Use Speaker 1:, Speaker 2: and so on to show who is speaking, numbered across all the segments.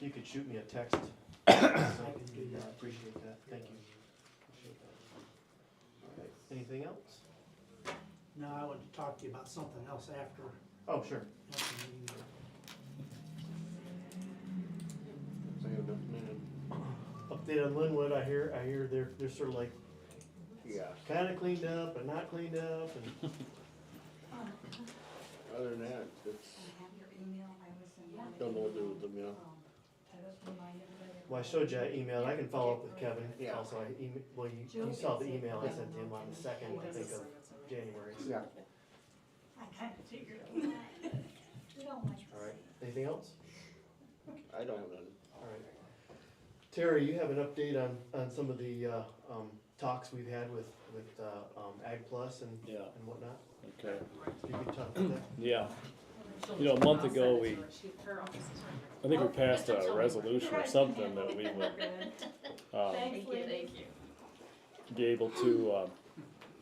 Speaker 1: you could shoot me a text. So, yeah, I appreciate that, thank you. Appreciate that. All right, Anything else?
Speaker 2: No, I wanted to talk to you about something else after,
Speaker 1: Oh, sure.
Speaker 2: after the meeting.
Speaker 1: Mm-hmm. Update on Linwood, I hear, I hear they're, they're sort of like
Speaker 3: Yeah,
Speaker 1: kinda cleaned up and not cleaned up and,
Speaker 3: other than that, it's, don't know what to do with them, you know?
Speaker 1: well, I showed you that email, I can follow up with Kevin.
Speaker 3: Yeah.
Speaker 1: Also, I email, well, you, you saw the email I sent to him on the second, I think, of January.
Speaker 3: Yeah.
Speaker 4: I kind of figured it out.
Speaker 1: All right, anything else?
Speaker 3: I don't have none.
Speaker 1: All right. Terry, you have an update on, on some of the, uh, um, talks we've had with, with, uh, um, Ag Plus and,
Speaker 5: Yeah,
Speaker 1: and whatnot?
Speaker 5: okay,
Speaker 1: If you could talk about that.
Speaker 5: yeah. You know, a month ago, we- I think we passed a resolution or something that we would, uh,
Speaker 4: Thank you, thank you.
Speaker 5: be able to, uh,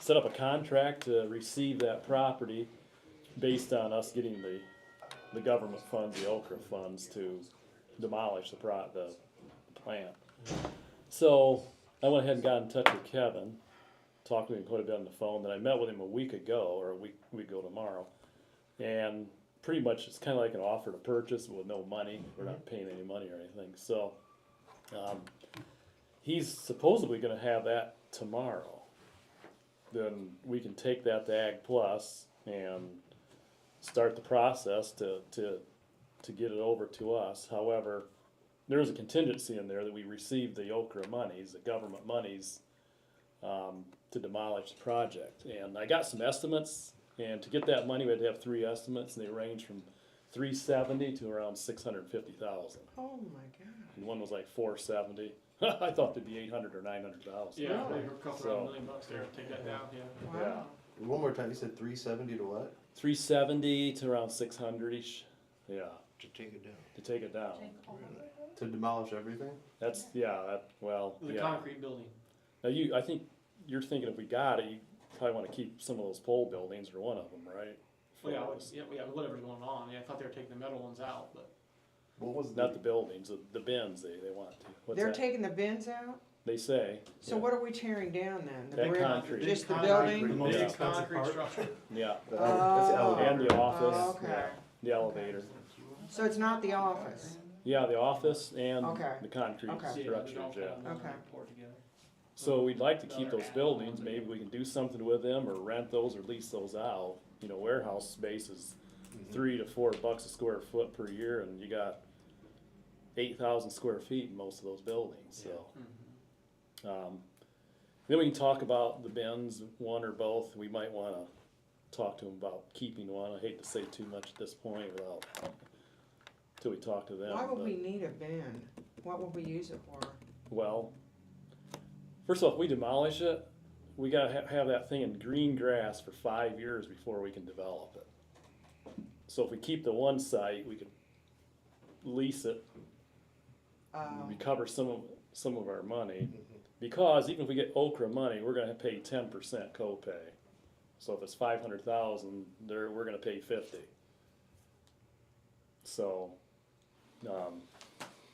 Speaker 5: set up a contract to receive that property based on us getting the, the government funds, the Okra funds to demolish the pro, the plant. So I went ahead and got in touch with Kevin, talked to him quite a bit on the phone, then I met with him a week ago, or a week, week ago tomorrow. And pretty much it's kinda like an offer to purchase with no money, we're not paying any money or anything, so, um, he's supposedly gonna have that tomorrow. Then we can take that to Ag Plus and start the process to, to, to get it over to us. However, there is a contingency in there that we receive the Okra monies, the government monies, um, to demolish the project. And I got some estimates, and to get that money, we had to have three estimates, and they range from three seventy to around six hundred and fifty thousand.
Speaker 6: Oh my god.
Speaker 5: And one was like four seventy. I thought they'd be eight hundred or nine hundred thousand.
Speaker 7: Yeah, they were a couple
Speaker 5: So-
Speaker 7: of million bucks there, take that down, yeah.
Speaker 6: Wow.
Speaker 3: One more time, you said three seventy to what?
Speaker 5: Three seventy to around six hundred ish. Yeah,
Speaker 3: To take it down.
Speaker 5: to take it down.
Speaker 3: To demolish everything?
Speaker 5: That's yeah. That, well,
Speaker 7: The
Speaker 5: yeah.
Speaker 7: concrete building.
Speaker 5: Now you, I think you're thinking if we got it, you probably want to keep some of those pole buildings or one of them, right? For
Speaker 7: Well, yeah,
Speaker 5: those.
Speaker 7: what's- yeah, yeah, whatever's going on. Yeah, I thought they were taking the metal ones out, but
Speaker 3: What was
Speaker 5: Not the buildings, the, the bins. They, they want to. What's
Speaker 6: They're
Speaker 5: that?
Speaker 6: taking the bins out?
Speaker 5: they say.
Speaker 6: So
Speaker 5: yeah.
Speaker 6: what are we tearing down then? The
Speaker 5: That
Speaker 6: brick-
Speaker 5: concrete.
Speaker 6: Just the
Speaker 7: Concrete.
Speaker 6: building?
Speaker 1: most
Speaker 7: big
Speaker 1: expensive
Speaker 7: concrete
Speaker 1: part.
Speaker 7: structure.
Speaker 5: Yeah,
Speaker 3: The ele- that's the
Speaker 6: Oh.
Speaker 3: elevator.
Speaker 5: and the office,
Speaker 6: Oh, okay.
Speaker 5: the elevator.
Speaker 6: So it's not the office?
Speaker 5: Yeah, the office and
Speaker 6: Okay.
Speaker 5: the concrete
Speaker 6: Okay.
Speaker 7: Yeah, they're all
Speaker 5: structures. Yeah.
Speaker 7: kind of
Speaker 6: Okay.
Speaker 7: poured together.
Speaker 6: Mm-hmm.
Speaker 5: So we'd like to keep those buildings, maybe we can do something with them or rent those or lease those out. You know, warehouse space is
Speaker 6: Mm-hmm.
Speaker 5: three to four bucks a square foot per year and you got eight thousand square feet in most of those buildings, so.
Speaker 7: Mm-hmm.
Speaker 5: Um, then we can talk about the bins, one or both, we might wanna talk to them about keeping one, I hate to say too much at this point without, till we talk to them.
Speaker 6: Why would
Speaker 5: but-
Speaker 6: we need a bin? What would we use it for?
Speaker 5: well, first off, we demolish it. We gotta ha- have that thing in green grass for five years before we can develop it. So if we keep the one site, we could lease it,
Speaker 6: Um,
Speaker 5: recover some of, some of our money. Because even if we get Okra money, we're gonna pay ten percent copay. So if it's five hundred thousand, there, we're gonna pay fifty. So, um,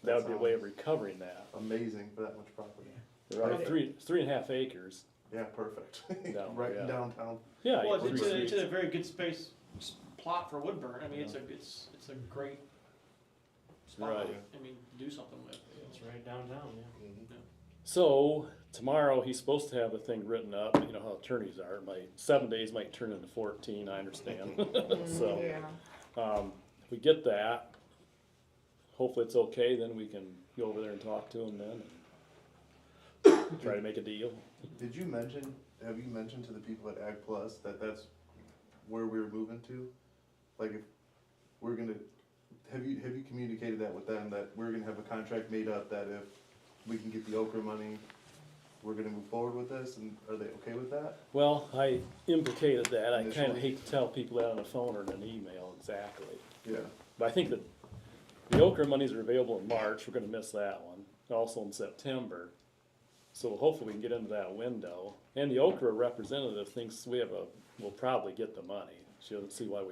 Speaker 5: that would be a way of recovering that.
Speaker 3: Amazing for that much property.
Speaker 5: Right, three, three and a half acres.
Speaker 3: Yeah, perfect.
Speaker 5: Down,
Speaker 3: Right
Speaker 5: yeah.
Speaker 3: in downtown.
Speaker 5: Yeah.
Speaker 7: Well,
Speaker 5: you
Speaker 7: it's,
Speaker 5: can
Speaker 7: a, it's
Speaker 5: reach-
Speaker 7: a very good space s- plot for Woodburn. I mean, it's a it's it's a great spot.
Speaker 5: Right.
Speaker 7: I mean, to do something with.
Speaker 1: It's right downtown, yeah.
Speaker 3: Mm-hmm.
Speaker 5: So tomorrow he's supposed to have the thing written up. You know how attorneys are. My seven days might turn into fourteen. I understand. so
Speaker 6: yeah.
Speaker 5: um, if we get that, hopefully it's okay. Then we can go over there and talk to him then. And try to make a deal.
Speaker 3: Did you mention, have you mentioned to the people at Ag Plus that that's where we we're moving to? Like if we're gonna, have you, have you communicated that with them, that we're gonna have a contract made up that if we can get the Okra money, we're gonna move forward with this, and are they okay with that?
Speaker 5: Well, I implicated that. I kind of
Speaker 3: Initially.
Speaker 5: hate to tell people that on the phone or in an email exactly.
Speaker 3: Yeah.
Speaker 5: But I think that the Okra monies are available in March, we're gonna miss that one, and also in September. So hopefully we can get into that window, and the Okra representative thinks we have a, we'll probably get the money, she doesn't see why we